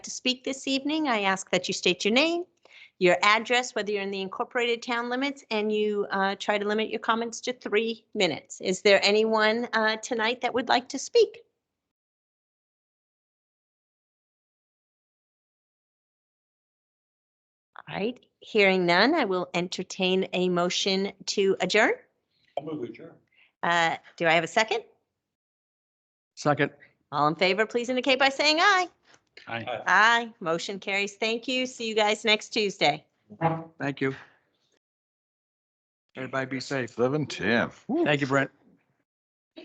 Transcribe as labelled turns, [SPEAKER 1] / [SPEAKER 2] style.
[SPEAKER 1] to speak this evening, I ask that you state your name, your address, whether you're in the incorporated town limits, and you uh, try to limit your comments to three minutes. Is there anyone uh, tonight that would like to speak? All right, hearing none, I will entertain a motion to adjourn.
[SPEAKER 2] I'll move adjourn.
[SPEAKER 1] Uh, Do I have a second?
[SPEAKER 3] Second.
[SPEAKER 1] All in favor, please indicate by saying aye.
[SPEAKER 3] Aye.
[SPEAKER 1] Aye, motion carries. Thank you. See you guys next Tuesday.
[SPEAKER 3] Thank you. Everybody be safe.
[SPEAKER 4] Seven ten.
[SPEAKER 3] Thank you, Brent.